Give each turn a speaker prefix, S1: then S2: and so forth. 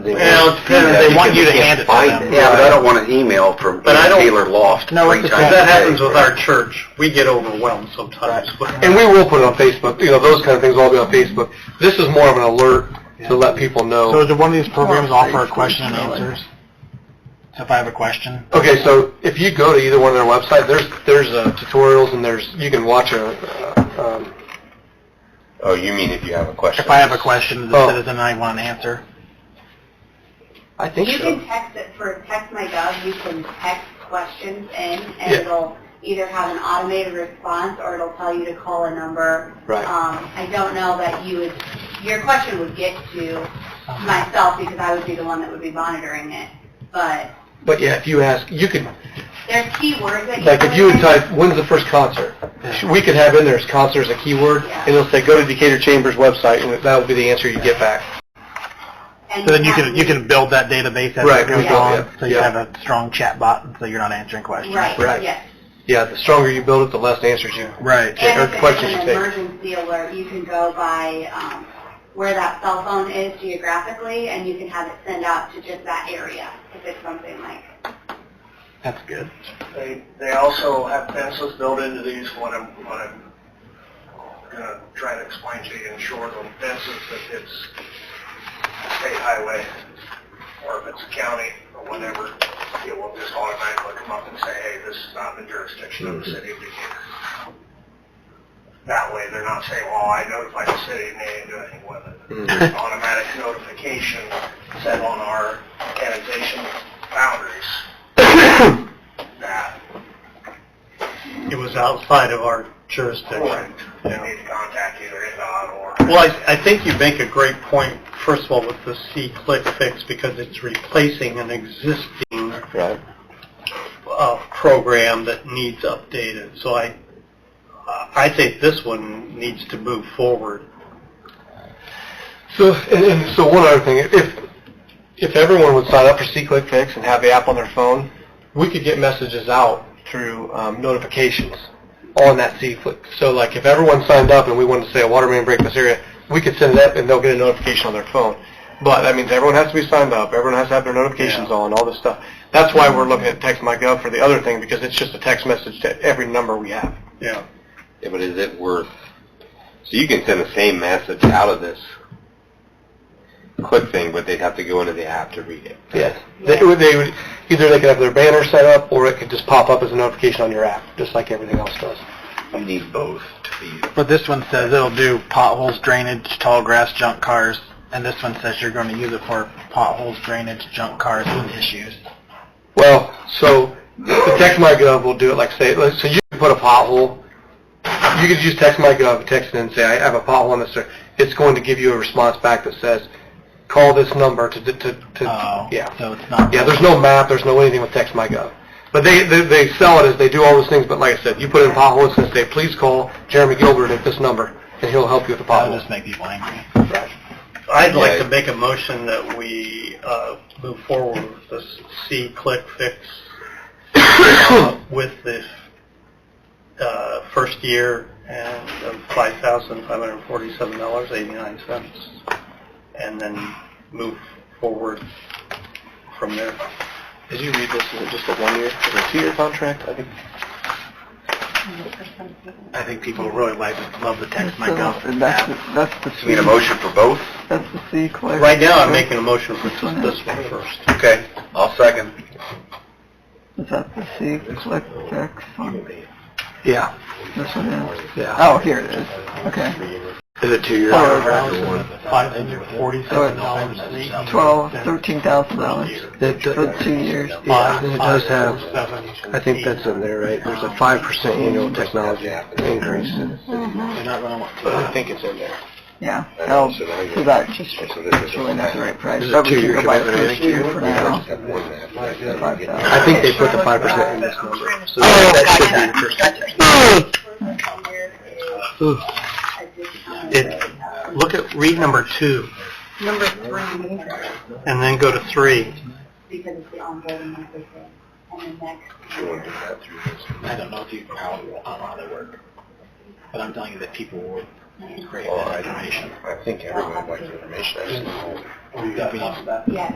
S1: They
S2: Well,
S1: want-
S2: it depends. They want you to hand it to
S1: Find
S2: them.
S1: it. Yeah, but I don't want an email from
S2: But I don't-
S1: Taylor Loft
S3: No,
S1: three
S3: it's
S1: times
S3: the-
S2: That
S1: a day,
S2: happens with
S1: right?
S2: our church. We get overwhelmed sometimes.
S3: And we will put it on Facebook, you know, those kind of things will all be on Facebook. This is more of an alert to let people
S4: So
S3: know.
S4: do one of these programs offer a question and answers? If I have a question?
S3: Okay, so if you go to either one of their websites, there's, there's uh, tutorials and there's, you can watch a, uh, um,
S1: Oh, you mean if you have a question?
S4: If I have a question, the
S3: Oh.
S4: citizen, I want an answer.
S3: I think
S5: You
S3: so.
S5: can text it for text my gov, you can text questions in and
S3: Yeah.
S5: it'll either have an automated response or it'll tell you to call a number.
S3: Right.
S5: Um, I don't know that you would, your question would get to myself because I would be the one that would be monitoring it. But
S3: But yeah, if you ask, you could,
S5: there's keywords that you.
S3: like, if you would
S5: can-
S3: type, when's the first concert? We could have in there as concert as a keyword, and it'll say, go to Decatur Chambers website, and that will be the answer you get back.
S5: and
S4: So then you can,
S5: have
S4: you can build that database as
S3: Right,
S4: it goes
S5: yeah.
S4: on, so you
S3: Yeah.
S4: have a strong chat bot, so you're not answering questions.
S5: Right,
S3: Right.
S5: yes.
S3: Yeah, the stronger you build it, the less answers you.
S4: Right.
S3: Yeah, or
S5: And if
S3: questions
S5: it's
S3: you
S5: an
S3: take.
S5: emergency alert, you can go by um, where that cell phone is geographically, and you can have it send out to just that area if it's something like.
S4: That's good.
S6: They, they also have pencils built into these, what I'm, what I'm gonna try to explain to you in short on fences, if it's a state highway, or if it's a county, or whatever, it will just automatically come up and say, hey, this is not in the jurisdiction of the city of Decatur. That way, they're not saying, well, I notified the city, and they didn't do anything with it. It's Automatic notification set on our annexation boundaries that
S2: It was outside of our jurisdiction.
S6: Correct. They need to contact either NDOT or...
S2: Well, I, I think you make a great point, first of all, with the C-click fix, because it's replacing an existing
S1: Right.
S2: uh, program that needs updated. So I, I think this one needs to move forward.
S3: So, and, and so one other thing, if, if everyone would sign up for C-Click Fix and have the app on their phone, we could get messages out through um, notifications on that C-Click. So like if everyone signed up and we wanted to say a water main break in this area, we could send it up and they'll get a notification on their phone. But that means everyone has to be signed up, everyone has to have their notifications on, all this stuff. That's why we're looking at text my gov for the other thing because it's just a text message to every number we have.
S2: Yeah.
S1: Yeah, but is it worth, so you can send the same message out of this click thing, but they'd have to go into the app to read it.
S3: Yes. They would, they would, either they could have their banner set up, or it could just pop up as a notification on your app, just like everything else does.
S1: You need both to be.
S4: But this one says it'll do potholes, drainage, tall grass, junk cars, and this one says you're going to use it for potholes, drainage, junk cars with issues.
S3: Well, so, the text my gov will do it, like say, like, so you can put a pothole, you could use text my gov, text it and say, I have a pothole on this, or it's going to give you a response back that says, call this number to, to, to,
S4: Oh,
S3: to- yeah.
S4: so it's not.
S3: Yeah, there's no map, there's no anything with text my gov. But they, they, they sell it as they do all those things, but like I said, you put in pothole, it's gonna say, please call Jeremy Gilbert at this number, and he'll help you with the
S4: That'll
S3: pothole.
S4: just make people angry.
S2: I'd like
S1: Yeah.
S2: to make a motion that we uh, move forward with this C-click fix uh, with this uh, first year and of $5,547.89, and then move forward from there.
S3: Did you read this? Is it just a one-year, or a two-year contract? I think.
S4: I think people really like love the text my gov.
S7: That's the
S1: So we need a motion for both?
S7: that's the C click.
S2: Right now, I'm making a motion for just this one first.
S1: Okay, I'll second.
S7: Is that the C click text on
S3: Yeah,
S7: this one is?
S3: yeah.
S7: Oh, here it is. Okay.
S3: Is it two-year?
S4: Five hundred forty-seven dollars and eighty.
S7: Twelve, thirteen thousand dollars for two years.
S3: Yeah, and it does have, I think that's in there, right? There's a five percent annual technology increase.
S4: They're not gonna want
S3: But I think it's in there.
S7: Yeah. Oh, so that just, that's really not the right price.
S3: Is it
S7: But we
S3: two-year
S7: can go by the
S3: commitment, I
S7: first
S3: think?
S7: year for now. Five thousand.
S3: I think they put the five percent in this number, so that should be the first.
S5: Somewhere is a discount.
S2: It, look at, read number two,
S5: Number three,
S2: and then go to three.
S5: because it's the onboarding and everything. And then next,
S4: to. I don't know if you how how they work, but I'm telling you that people will crave
S1: Well, Oh, I-
S4: that information.
S1: I think everyone likes information. I just don't know.
S4: That'd be-
S5: yeah,